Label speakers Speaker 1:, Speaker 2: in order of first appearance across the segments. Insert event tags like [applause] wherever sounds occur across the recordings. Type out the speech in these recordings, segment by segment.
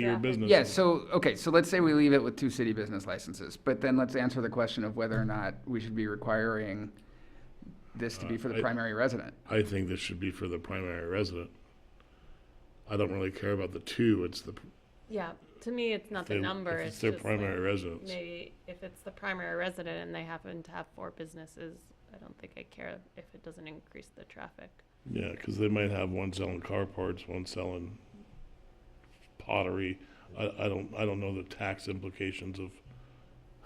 Speaker 1: your
Speaker 2: Traffic.
Speaker 1: business.
Speaker 3: Yeah, so, okay, so let's say we leave it with two city business licenses, but then let's answer the question of whether or not we should be requiring this to be for
Speaker 1: Uh, I-
Speaker 3: the primary resident.
Speaker 1: I think this should be for the primary resident. I don't really care about the two, it's the,
Speaker 2: Yeah, to me, it's not the
Speaker 1: They-
Speaker 2: number.
Speaker 1: if it's their
Speaker 2: just
Speaker 1: primary
Speaker 2: like,
Speaker 1: residence.
Speaker 2: Maybe if it's the primary resident and they happen to have four businesses, I don't think I care if it doesn't increase the traffic.
Speaker 1: yeah, because they might have one selling car parts, one selling pottery. I, I don't, I don't know the tax implications of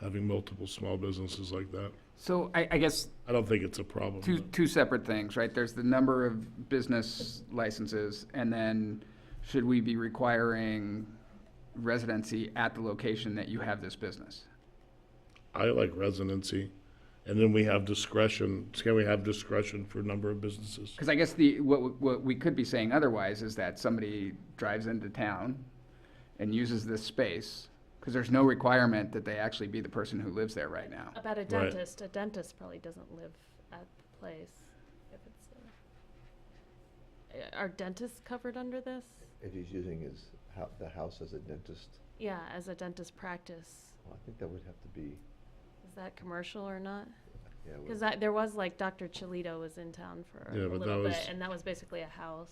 Speaker 1: having multiple small businesses like that.
Speaker 3: So I, I guess
Speaker 1: I don't think it's a problem.
Speaker 3: two,
Speaker 1: but-
Speaker 3: two separate things, right? There's the number of business licenses, and then should we be requiring residency at the location that you have this business?
Speaker 1: I like residency. And then we have discretion, can we have discretion for number of businesses?
Speaker 3: Because I guess the, what, w- what we could be saying otherwise is that somebody drives into town and uses this space, because there's no requirement that they actually be the person who lives there right now.
Speaker 2: About a dentist, a dentist probably doesn't live at the place. If it's a, uh, are dentists covered under this?
Speaker 4: If he's using his, hou- the house as a dentist,
Speaker 2: Yeah, as a dentist practice,
Speaker 4: well, I think that would have to be,
Speaker 2: is that commercial or not?
Speaker 4: yeah. it would-
Speaker 2: Because there was like Dr. Cholito was in town for
Speaker 1: Yeah,
Speaker 2: a
Speaker 1: but that
Speaker 2: little bit,
Speaker 1: was-
Speaker 2: and that was basically a house.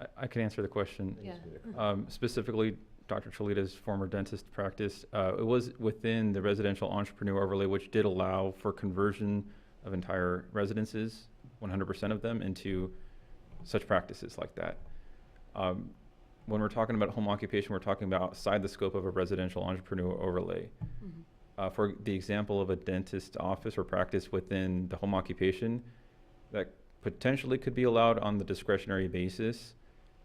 Speaker 5: I, I can answer the question.
Speaker 2: Yeah.
Speaker 5: Um, specifically, Dr. Cholita's former dentist practice, uh, it was within the residential entrepreneur overlay, which did allow for conversion of entire residences, 100% of them, into such practices like that. Um, when we're talking about home occupation, we're talking about outside the scope of a residential entrepreneur overlay.
Speaker 2: Mm-hmm.
Speaker 5: Uh, for the example of a dentist office or practice within the home occupation, that potentially could be allowed on the discretionary basis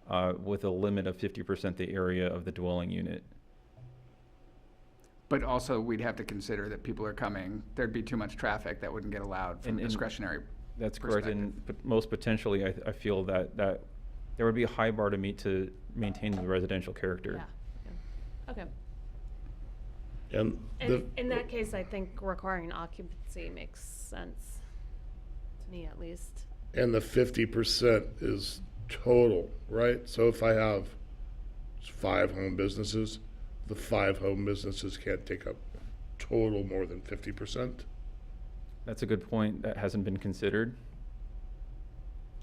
Speaker 5: uh, with a limit of 50% the area of the dwelling unit.
Speaker 3: But also, we'd have to consider that people are coming, there'd be too much traffic that wouldn't get allowed from
Speaker 5: And- and-
Speaker 3: discretionary.
Speaker 5: That's correct. And pot- most potentially, I, I feel that, that there would be a high bar to meet to maintain the residential character.
Speaker 2: Yeah. yeah. Okay.
Speaker 1: And the,
Speaker 2: And in that case, I think requiring occupancy makes sense, to me at least.
Speaker 1: and the fifty percent is total, right? So if I have five home businesses, the five home businesses can't take up total more than fifty percent.
Speaker 5: That's a good point that hasn't been considered.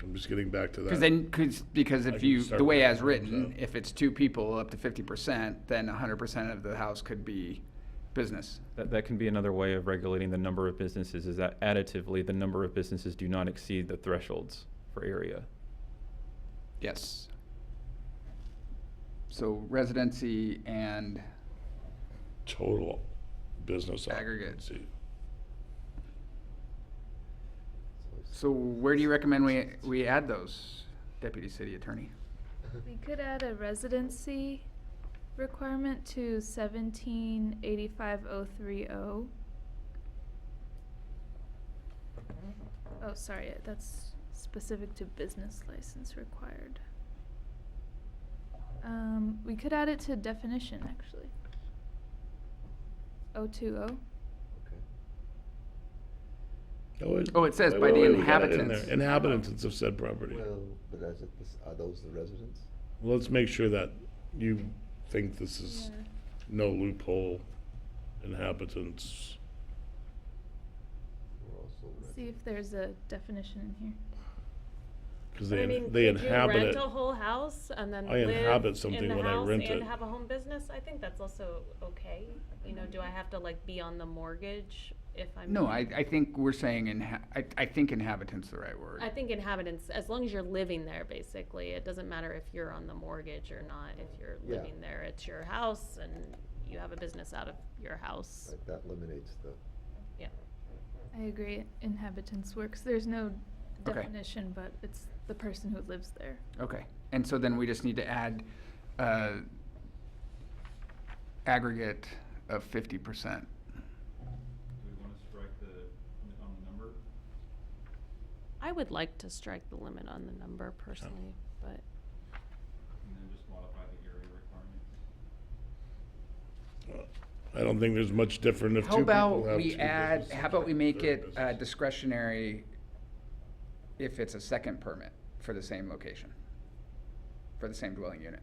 Speaker 1: I'm just getting back to that.
Speaker 3: Because then, because, because
Speaker 1: I
Speaker 3: if
Speaker 1: can
Speaker 3: you,
Speaker 1: start
Speaker 3: the way
Speaker 1: with
Speaker 3: as
Speaker 1: that,
Speaker 3: written,
Speaker 1: so.
Speaker 3: if it's two people up to fifty percent, then hundred percent of the house could be business.
Speaker 5: That, that can be another way of regulating the number of businesses is that additively, the number of businesses do not exceed the thresholds for area.
Speaker 3: Yes. So residency and,
Speaker 1: Total business
Speaker 3: Aggregate.
Speaker 1: occupancy.
Speaker 3: so where do you recommend we,
Speaker 4: [laughs]
Speaker 3: we add those, deputy city attorney?
Speaker 6: We could add a residency requirement to seventeen eighty-five oh three oh. Oh, sorry, that's specific to business license required. Um, we could add it to definition, actually. Oh two oh.
Speaker 4: Okay.
Speaker 3: Oh, it says
Speaker 1: Wait,
Speaker 3: by
Speaker 1: wait,
Speaker 3: the
Speaker 1: wait, we got it in
Speaker 3: inhabitants.
Speaker 1: there. Inhabitants of said property.
Speaker 4: Well, but is it, this- are those the residents?
Speaker 1: Let's make sure that you think this is no loophole, inhabitants.
Speaker 4: We're also
Speaker 6: See if there's a definition in here.
Speaker 1: Because
Speaker 2: But I
Speaker 1: they,
Speaker 2: mean,
Speaker 1: in-
Speaker 2: could
Speaker 1: they
Speaker 2: you
Speaker 1: inhabit
Speaker 2: rent
Speaker 1: it.
Speaker 2: a whole house and then
Speaker 1: I
Speaker 2: live
Speaker 1: inhabit something
Speaker 2: in the
Speaker 1: when I
Speaker 2: house
Speaker 1: rent it.
Speaker 2: and have a home business? I think that's also okay. You know, do I have to like be on the mortgage if I'm?
Speaker 3: No, I, I think we're saying inha, I, I think inhabitant's the right word.
Speaker 2: I think inhabitants, as long as you're living there, basically, it doesn't matter if you're on the mortgage or not. If you're
Speaker 4: Yeah.
Speaker 2: living there, it's your house and you have a business out of your house.
Speaker 4: Like, that eliminates the,
Speaker 2: Yeah.
Speaker 6: I agree, inhabitants works, there's no
Speaker 3: Okay.
Speaker 6: definition, but it's the person who lives there.
Speaker 3: Okay, and so then we just need to add, uh, aggregate of fifty percent.
Speaker 5: Do we want to strike the, on the number?
Speaker 2: I would like to strike the limit on the number personally, but
Speaker 5: And then just modify the area requirement?
Speaker 1: I don't think there's much different if two
Speaker 3: How
Speaker 1: people have two
Speaker 3: about we add,
Speaker 1: businesses
Speaker 3: how about we make
Speaker 1: or
Speaker 3: it uh,
Speaker 1: business.
Speaker 3: discretionary if it's a second permit for the same location? For the same dwelling unit?